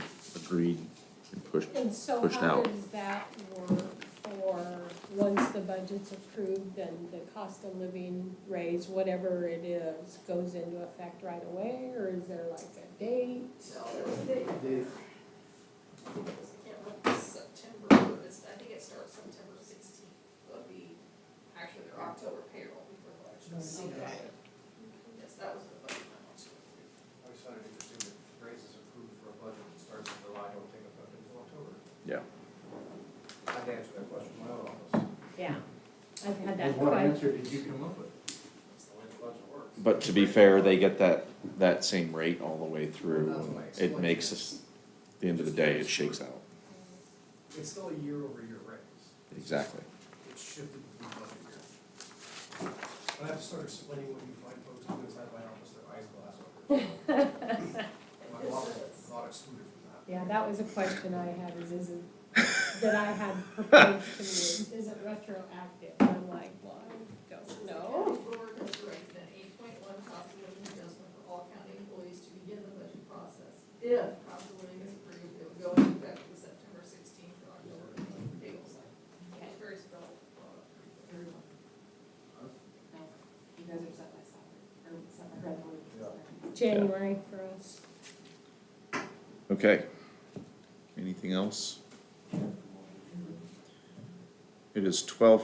agreed and pushed, And so pushed how out. does that work for, once the budget's approved, then the cost of living raise, whatever it is, goes into effect right away, or is there like a date? I can't remember, it's September, but it's, I think it starts September sixteenth, it'll be actually their October payroll before the election. So, Okay. Yes, that was the budget I wanted to approve. I just found it interesting that raises approved for a budget that starts in July, don't take effect until October. Yeah. I had to answer that question in my own office. Yeah, I've had that What quite, answer did you come up with? That's the way the budget works. But to be fair, they get that, that same rate all the way through. It makes us, at the end of the day, it shakes out. It's still a year-over-year raise. Exactly. It's shifted to the budget year. And I have to start explaining what you find folks do inside my office, their eyes glass over. My law is not excluded from that. yeah, that was a question I had, is, is it, that I had proposed to me, is it retroactive? And I'm like, well, I don't know. County Board has directed an eight point one cost of living adjustment for all county employees to begin the budget process. If cost of living is approved, it would go into effect the September sixteenth or October payroll cycle. It's very spelled, uh, everyone. You guys are set by soccer, or set by red one. January for us. Okay. Anything else? It is twelve